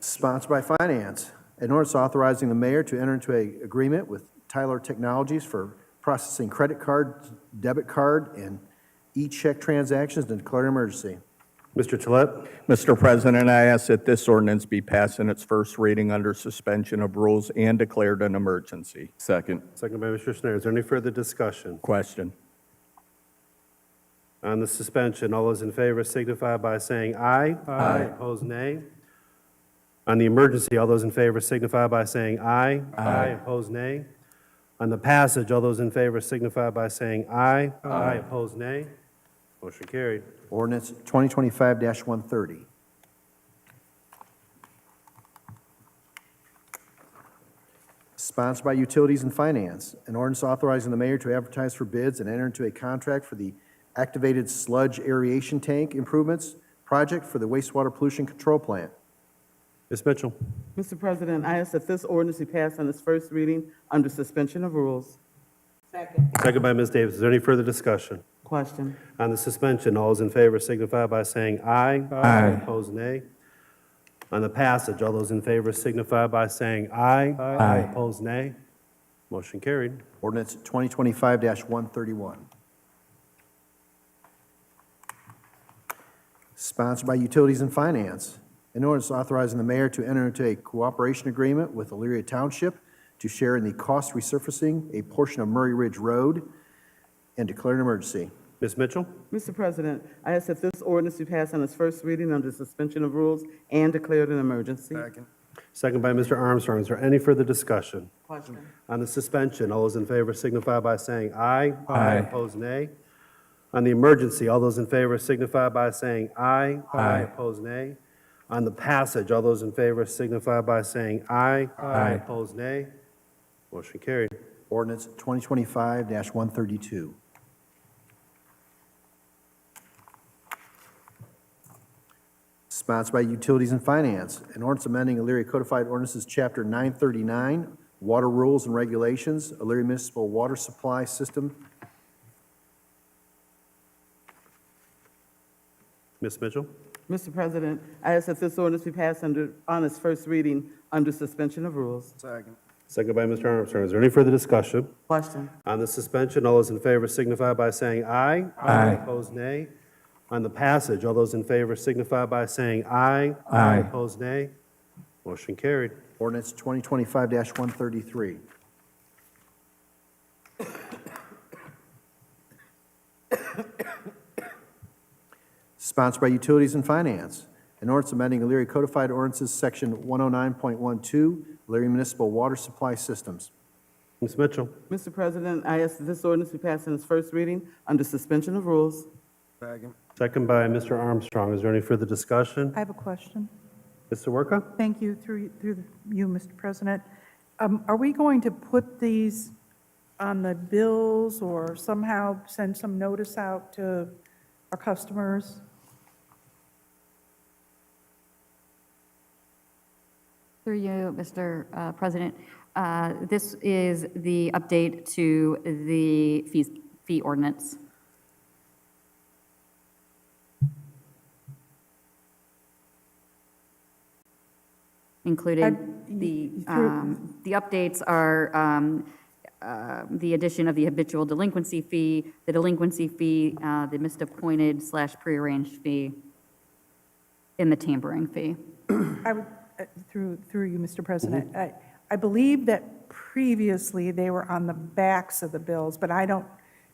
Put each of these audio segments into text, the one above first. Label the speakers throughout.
Speaker 1: sponsored by Finance. An ordinance authorizing the mayor to enter into a agreement with Tyler Technologies for processing credit card, debit card, and e-check transactions and declare an emergency.
Speaker 2: Mr. Tolet,
Speaker 3: Mr. President, I ask that this ordinance be passed in its first reading under suspension of rules and declared an emergency.
Speaker 4: Second.
Speaker 2: second by Mr. Schneider. Is there any further discussion
Speaker 3: Question.
Speaker 2: on the suspension? All those in favor signify by saying aye. Aye. Opposed, nay. On the emergency, all those in favor signify by saying aye. Aye. Opposed, nay. On the passage, all those in favor signify by saying aye. Aye. Opposed, nay. Motion carried.
Speaker 1: Ordinance 2025-130. Sponsored by Utilities and Finance. An ordinance authorizing the mayor to advertise for bids and enter into a contract for the activated sludge aeration tank improvements project for the wastewater pollution control plant.
Speaker 2: Ms. Mitchell,
Speaker 5: Mr. President, I ask that this ordinance be passed on its first reading under suspension of rules.
Speaker 2: second by Ms. Davis. Is there any further discussion?
Speaker 5: Question.
Speaker 2: On the suspension, all those in favor signify by saying aye. Aye. Opposed, nay. On the passage, all those in favor signify by saying aye. Aye. Opposed, nay. Motion carried.
Speaker 1: Ordinance 2025-131. Sponsored by Utilities and Finance. An ordinance authorizing the mayor to enter into a cooperation agreement with Elyria Township to share in the cost resurfacing a portion of Murray Ridge Road and declare an emergency.
Speaker 2: Ms. Mitchell,
Speaker 5: Mr. President, I ask that this ordinance be passed on its first reading under suspension of rules and declared an emergency.
Speaker 2: second by Mr. Armstrong. Is there any further discussion?
Speaker 5: Question.
Speaker 2: On the suspension, all those in favor signify by saying aye. Aye. Opposed, nay. On the emergency, all those in favor signify by saying aye. Aye. Opposed, nay. On the passage, all those in favor signify by saying aye. Aye. Opposed, nay. Motion carried.
Speaker 1: Ordinance 2025-132. Sponsored by Utilities and Finance, an ordinance amending Elyria Codified Ordinances, Chapter 939, Water Rules and Regulations, Elyria Municipal Water Supply System.
Speaker 2: Ms. Mitchell,
Speaker 5: Mr. President, I ask that this ordinance be passed under, on its first reading under suspension of rules.
Speaker 2: second by Mr. Armstrong. Is there any further discussion?
Speaker 5: Question.
Speaker 2: On the suspension, all those in favor signify by saying aye. Aye. Opposed, nay. On the passage, all those in favor signify by saying aye. Aye. Opposed, nay. Motion carried.
Speaker 1: Ordinance 2025-133. Sponsored by Utilities and Finance. An ordinance amending Elyria Codified Ordinances, Section 109.12, Elyria Municipal Water Supply Systems.
Speaker 2: Ms. Mitchell,
Speaker 5: Mr. President, I ask that this ordinance be passed on its first reading under suspension of rules.
Speaker 2: second by Mr. Armstrong. Is there any further discussion?
Speaker 6: I have a question.
Speaker 2: Mr. Worka?
Speaker 6: Thank you, through, through you, Mr. President. Um, Are we going to put these on the bills or somehow send some notice out to our customers?
Speaker 7: Through you, Mr. uh, President, Uh, this is the update to the fees- fee ordinance. Included,
Speaker 6: I-
Speaker 7: the,
Speaker 6: through-
Speaker 7: um, the updates are um, uh, the addition of the habitual delinquency fee, the delinquency fee, uh, the misappointed slash prearranged fee, and the tampering fee.
Speaker 6: I would, uh, through, through you, Mr. President, I, I believe that previously they were on the backs of the bills, but I don't,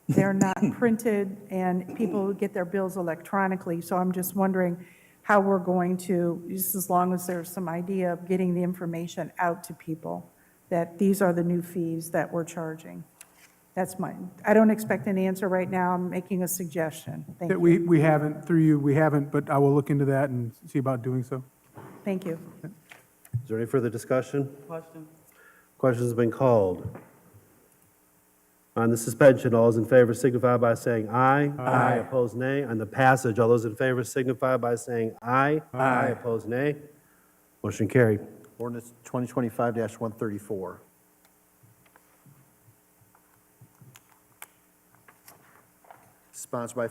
Speaker 6: they're not printed, and people get their bills electronically, so I'm just wondering how we're going to, just as long as there's some idea of getting the information out to people, that these are the new fees that we're charging. That's my, I don't expect an answer right now, I'm making a suggestion. Thank
Speaker 8: That
Speaker 6: you,
Speaker 8: we, we haven't, through you, we haven't, but I will look into that and see about doing so.
Speaker 6: thank you.
Speaker 2: Is there any further discussion?
Speaker 5: Question.
Speaker 2: Question's been called. On the suspension, all those in favor signify by saying aye. Aye. Opposed, nay. On the passage, all those in favor signify by saying aye. Aye. Opposed, nay. Motion carried.
Speaker 1: Ordinance 2025-134. Sponsored by